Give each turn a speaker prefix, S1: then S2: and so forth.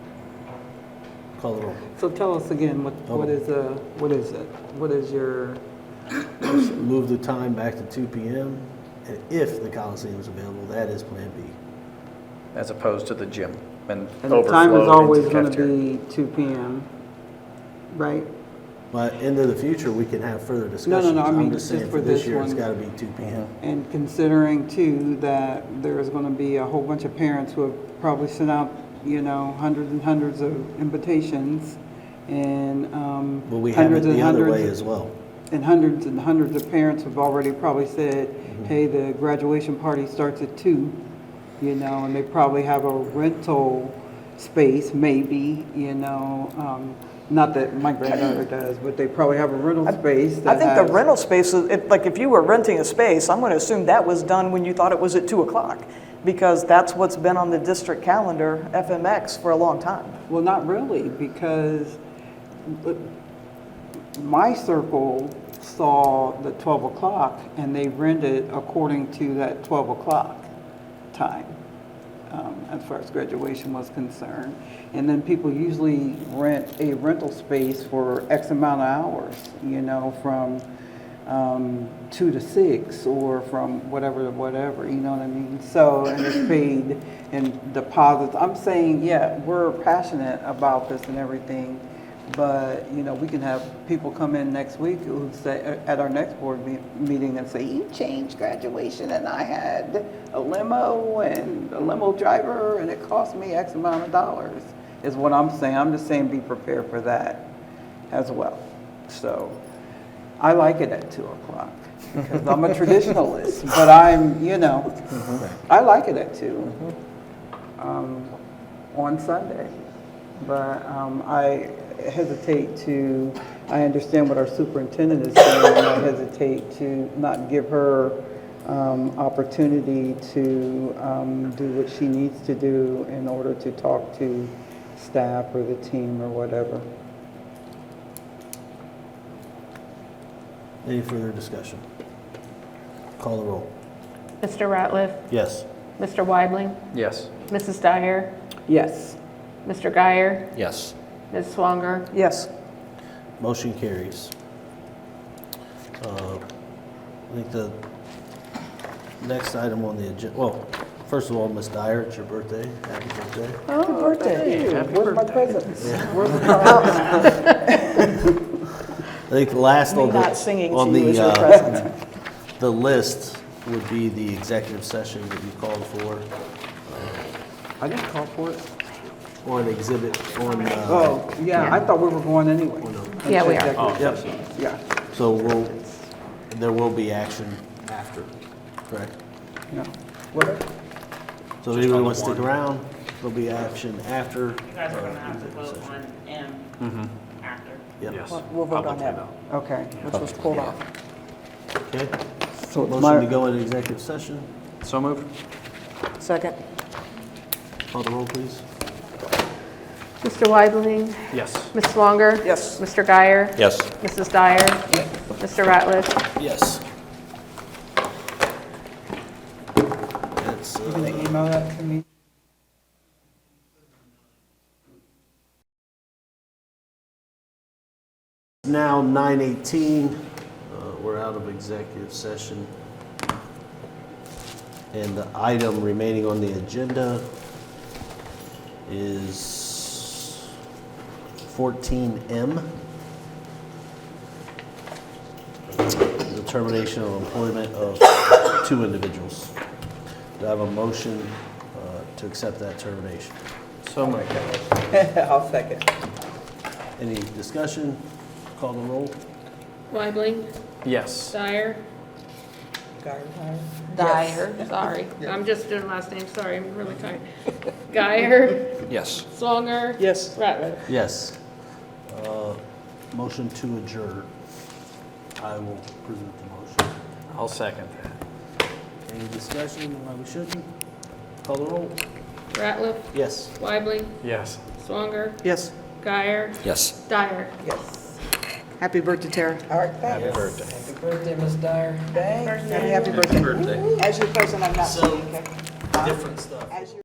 S1: Call the roll.
S2: So tell us again, what,
S1: Oh.
S2: what is, uh, what is it? What is your,
S1: Move the time back to 2 PM, and if the Coliseum is available, that is Plan B.
S3: as opposed to the gym and
S2: and the time is
S3: overflow into
S2: always
S3: the
S2: gonna
S3: cafeteria.
S2: be two PM, right?
S1: But into the future, we can have further discussions.
S2: no, I
S1: I'm
S2: mean,
S1: just
S2: just
S1: saying
S2: for
S1: for this
S2: this
S1: year, it's
S2: one.
S1: gotta be 2 PM.
S2: And considering too, that there is gonna be a whole bunch of parents who have probably sent out, you know, hundreds and hundreds of invitations and, um,
S1: But we have it
S2: hundreds and
S1: the other way
S2: hundreds
S1: as well.
S2: And hundreds and hundreds of parents have already probably said,
S4: Mm-hmm.
S2: hey, the graduation party starts at two, you know, and they probably have a rental space, maybe, you know, um, not that my granddaughter does, but they probably have a rental space
S4: I
S2: that
S4: think the
S2: has-
S4: rental space, is if, like, if you were renting a space, I'm gonna assume that was done when you thought it was at two o'clock, because that's what's been on the district calendar, FMX, for a long time.
S2: Well, not really, because but my circle saw the 12 o'clock and they rented according to that 12 o'clock time um, as far as graduation was concerned. And then people usually rent a rental space for X amount of hours, you know, from um, two to six or from whatever to whatever, you know what I mean? So, and it's paid and deposits. I'm saying, yeah, we're passionate about this and everything, but, you know, we can have people come in next week who say, at our next board me- meeting and say, you changed graduation and I had a limo and a limo driver and it cost me X amount of dollars, is what I'm saying. I'm just saying be prepared for that as well. So I like it at two o'clock because I'm a traditionalist, but I'm, you know, I like it at two um, on Sunday. But um, I hesitate to, I understand what our superintendent is saying, and I hesitate to not give her um, opportunity to um, do what she needs to do in order to talk to staff or the team or whatever.
S1: Any further discussion? Call the roll.
S5: Mr. Ratliff,
S1: Yes.
S5: Mr. Weibling,
S3: Yes.
S5: Mrs. Dyer,
S2: Yes.
S5: Mr. Guyer,
S1: Yes.
S5: Ms. Swanger,
S4: Yes,
S1: Motion carries. Uh, I think the next item on the agenda, well, first of all, Ms. Dyer, it's your birthday. Happy birthday.
S4: happy birthday.
S2: Where's my presents?
S1: I think the last
S4: Me
S1: on the,
S4: not singing
S1: on
S4: to you
S1: the,
S4: is your
S1: uh,
S4: present.
S1: the list would be the executive session that you called for,
S2: I didn't call for it.
S1: or an exhibit on, uh,
S2: Oh, yeah, I thought we were going anyway.
S5: Yeah, we are.
S2: Executive session. Yeah,
S1: so we'll, there will be action after, correct?
S2: yeah. Whatever.
S1: So if anybody wants to stick around, there'll be action after.
S6: You guys are
S1: uh,
S6: gonna have to vote
S1: executive
S6: on M after.
S1: session. Yep,
S3: Yes.
S4: We'll vote on that,
S2: Okay.
S4: which was pulled off.
S1: okay.
S2: So it's
S1: Motion to
S2: my,
S1: go into executive session.
S3: So moved.
S4: Second?
S1: Call the roll, please.
S5: Mr. Weibling,
S3: Yes.
S5: Ms. Swanger,
S4: Yes.
S5: Mr. Guyer,
S1: Yes.
S5: Mrs. Dyer, Mr. Ratliff,
S1: Yes. That's, uh,
S2: can you email that to me?
S1: Now 9:18, uh, we're out of executive session. And the item remaining on the agenda is 14M. The termination of employment of two individuals. Do I have a motion uh, to accept that termination?
S3: So moved.
S2: I'll second.
S1: Any discussion? Call the roll.
S7: Weibling,
S3: Yes.
S7: Dyer, Dyer, sorry. I'm just doing last name, sorry, I'm really tired. Guyer,
S3: Yes.
S7: Swanger.
S4: Yes.
S7: Ratliff.
S1: Yes. Uh, Motion to adjourn. I will present the motion.
S3: I'll second that.
S1: Any discussion on why we shouldn't? Call the roll.
S7: Ratliff,
S1: Yes.
S7: Weibling,
S3: Yes.
S7: Swanger,
S4: Yes.
S7: Guyer,
S3: Yes.
S7: Dyer.
S2: Yes.
S4: Happy birthday, Tara.
S2: All right, thanks.
S3: Happy birthday.
S2: Happy birthday, Ms. Dyer. Thanks. Happy birthday. As your person, I'm not. So, different stuff.